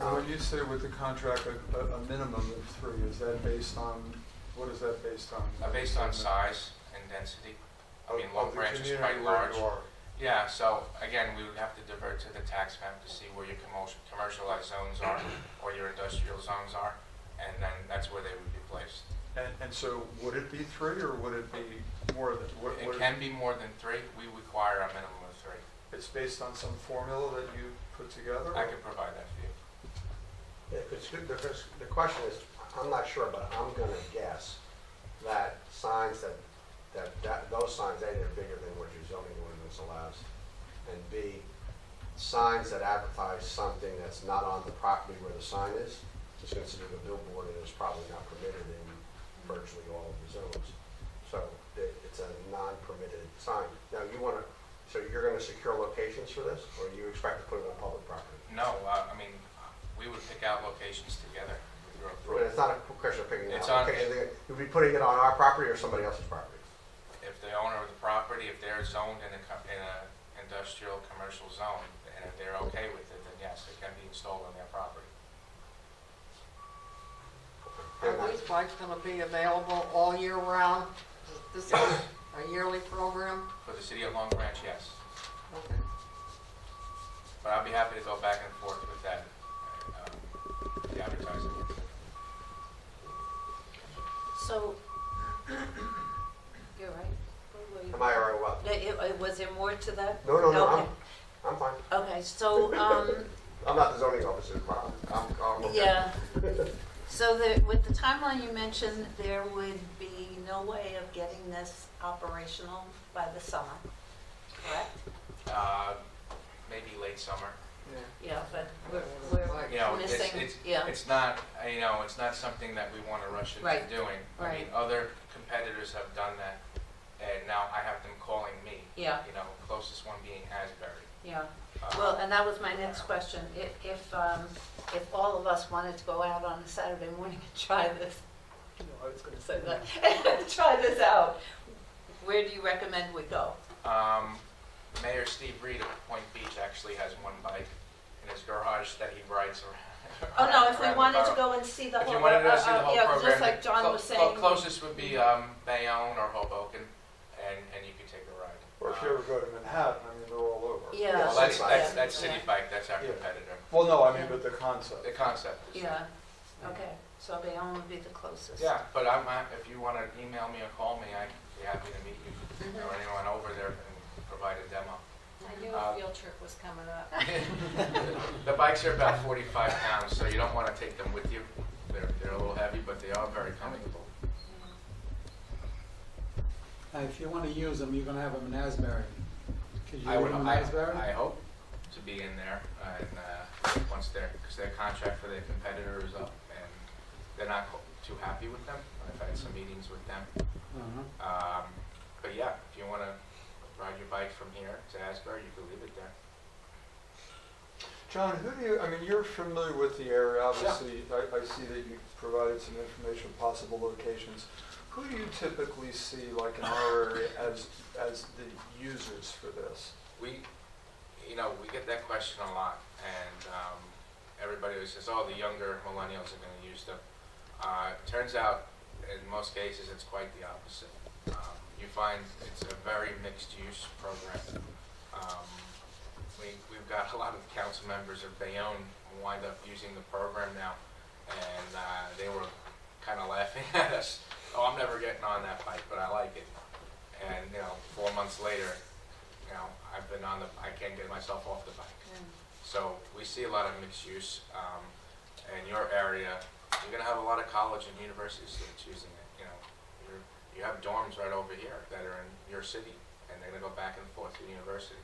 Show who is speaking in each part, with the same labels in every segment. Speaker 1: when you say with the contract, a, a a minimum of three, is that based on, what is that based on?
Speaker 2: Uh, based on size and density. I mean, Long
Speaker 1: Of the
Speaker 2: Branch is
Speaker 1: community
Speaker 2: quite
Speaker 1: where
Speaker 2: large.
Speaker 1: you are.
Speaker 2: Yeah, so again, we would have to divert to the tax map to see where your commercial, commercialized zones are or your industrial zones are, and then that's where they would be placed.
Speaker 1: And, and so would it be three or would it be more than, what,
Speaker 2: It
Speaker 1: what,
Speaker 2: can be more than three. We require a minimum of three.
Speaker 1: it's based on some formula that you put together?
Speaker 2: I
Speaker 1: or-
Speaker 2: can provide that for you.
Speaker 3: Yeah, 'cause the- the, first- the question is, I'm not sure, but I'm gonna guess that signs that, that, that, those signs, A, they're bigger than what your zoning ordinance allows. And B, signs that advertise something that's not on the property where the sign is, is considered a billboard and is probably not permitted in virtually all of the zones. So it, it's a non-permitted sign. Now, you wanna, so you're gonna secure locations for this, or you expect to put it on public property?
Speaker 2: No, uh, I mean, we would pick out locations together with your
Speaker 3: But
Speaker 2: approval.
Speaker 3: it's not a question of picking it
Speaker 2: It's
Speaker 3: out.
Speaker 2: on-
Speaker 3: Okay, they- You'd be putting it on our property or somebody else's property?
Speaker 2: If the owner of the property, if they're zoned in a, co- in a industrial, commercial zone, and if they're okay with it, then yes, it can be installed on their property.
Speaker 3: They're
Speaker 4: Are
Speaker 3: not-
Speaker 4: these bikes gonna be available all year round? Is this
Speaker 2: Yes.
Speaker 4: a yearly program?
Speaker 2: For the city of Long Branch, yes.
Speaker 4: Okay.
Speaker 2: But I'll be happy to go back and forth with that, um, the advertising.
Speaker 5: So, you're right. Where were you?
Speaker 3: Am I all right, well?
Speaker 5: No, it- it- Was there more to that?
Speaker 3: No, no, no, I'm,
Speaker 5: Okay.
Speaker 3: I'm fine.
Speaker 5: Okay, so, um,
Speaker 3: I'm not the zoning officer, but I'm, I'm okay.
Speaker 5: yeah. So the, with the timeline you mentioned, there would be no way of getting this operational by the summer, correct?
Speaker 2: Uh, Maybe late summer.
Speaker 1: Yeah.
Speaker 5: Yeah, but we're, we're,
Speaker 2: You know, it's,
Speaker 5: Missing,
Speaker 2: it's,
Speaker 5: yeah.
Speaker 2: it's not, uh, you know, it's not something that we want to rush into
Speaker 5: Right,
Speaker 2: doing. I mean,
Speaker 5: right.
Speaker 2: other competitors have done that, and now I have them calling me.
Speaker 5: yeah,
Speaker 2: You know, closest one being Asbury.
Speaker 5: yeah.
Speaker 2: Uh,
Speaker 5: Well, and that was my next question. If, if, um, if all of us wanted to go out on a Saturday morning and try this, you know, I was gonna say that, try this out, where do you recommend we go?
Speaker 2: Um, Mayor Steve Reed of Point Beach actually has one bike in his garage that he rides around.
Speaker 5: Oh, no, if
Speaker 2: around
Speaker 5: we
Speaker 2: the
Speaker 5: wanted to
Speaker 2: borough.
Speaker 5: go and see the
Speaker 2: If you
Speaker 5: whole,
Speaker 2: wanted to see the
Speaker 5: uh, uh,
Speaker 2: whole
Speaker 5: yeah,
Speaker 2: program.
Speaker 5: just like John
Speaker 2: clo-
Speaker 5: was
Speaker 2: clo-
Speaker 5: saying.
Speaker 2: Closest would be, um, Bayonne or Hoboken, and, and you could take a ride.
Speaker 1: Or
Speaker 2: Uh,
Speaker 1: if you ever go to Manhattan, I mean, they're all over.
Speaker 5: Yeah.
Speaker 2: Well,
Speaker 3: City
Speaker 2: that's, that's,
Speaker 5: Bike.
Speaker 2: that's City
Speaker 5: Yeah.
Speaker 2: Bike, that's our
Speaker 1: Yeah.
Speaker 2: competitor.
Speaker 1: Well, no, I mean, but the concept.
Speaker 2: The concept is.
Speaker 5: Yeah, okay, so Bayonne would be the closest.
Speaker 2: Yeah, but I'm, uh, if you wanna email me or call me, I'd be happy to meet you,
Speaker 5: Mhm.
Speaker 2: or anyone over there and provide a demo.
Speaker 6: I knew
Speaker 2: Uh,
Speaker 6: a field trip was coming up.
Speaker 2: The bikes are about forty-five pounds, so you don't wanna take them with you. They're, they're a little heavy, but they are very comfortable.
Speaker 7: And Uh, if you want to use them, you're going to have them in Asbury. Could you
Speaker 2: I would,
Speaker 7: order 'em in
Speaker 2: I,
Speaker 7: Asbury?
Speaker 2: I hope to be in there and, uh, once their, cause their contract for their competitor is up and they're not co- too happy with them. I've had some meetings with them.
Speaker 7: Uh-huh.
Speaker 2: Um, but yeah, if you wanna ride your bike from here to Asbury, you can leave it there.
Speaker 1: John, who do you, I mean, you're familiar with the area, obviously, I, I see that you provided some information, possible locations. Who do you typically see, like in our area, as, as the users for this?
Speaker 2: We, you know, we get that question a lot, and um, everybody always says, "Oh, the younger millennials are going to use them." Uh, turns out, in most cases, it's quite the opposite. Um, you find it's a very mixed-use program. Um, we, we've got a lot of council members of Bayonne who wind up using the program now, and uh, they were kind of laughing at us. Oh, I'm never getting on that bike, but I like it. And you know, four months later, you know, I've been on the, I can't get myself off the bike. So we see a lot of mixed use, um, in your area, you're gonna have a lot of college and university students using it, you know. You're, you have dorms right over here that are in your city, and they're gonna go back and forth to university,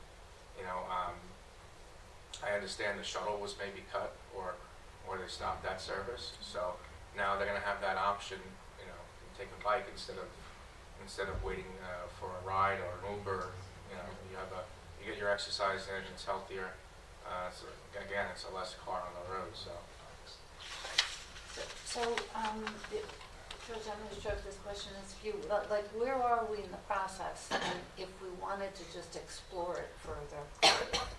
Speaker 2: you know, um, I understand the shuttle was maybe cut, or, or they stopped that service, so now they're gonna have that option, you know, to take a bike instead of, instead of waiting, uh, for a ride or an Uber, you know, you have a, you get your exercise in, it's healthier, uh, so again, it's a less car on the road, so.
Speaker 5: So, um, it- George, I'm gonna stroke this question as you, but like, where are we in the process? And if we wanted to just explore it further,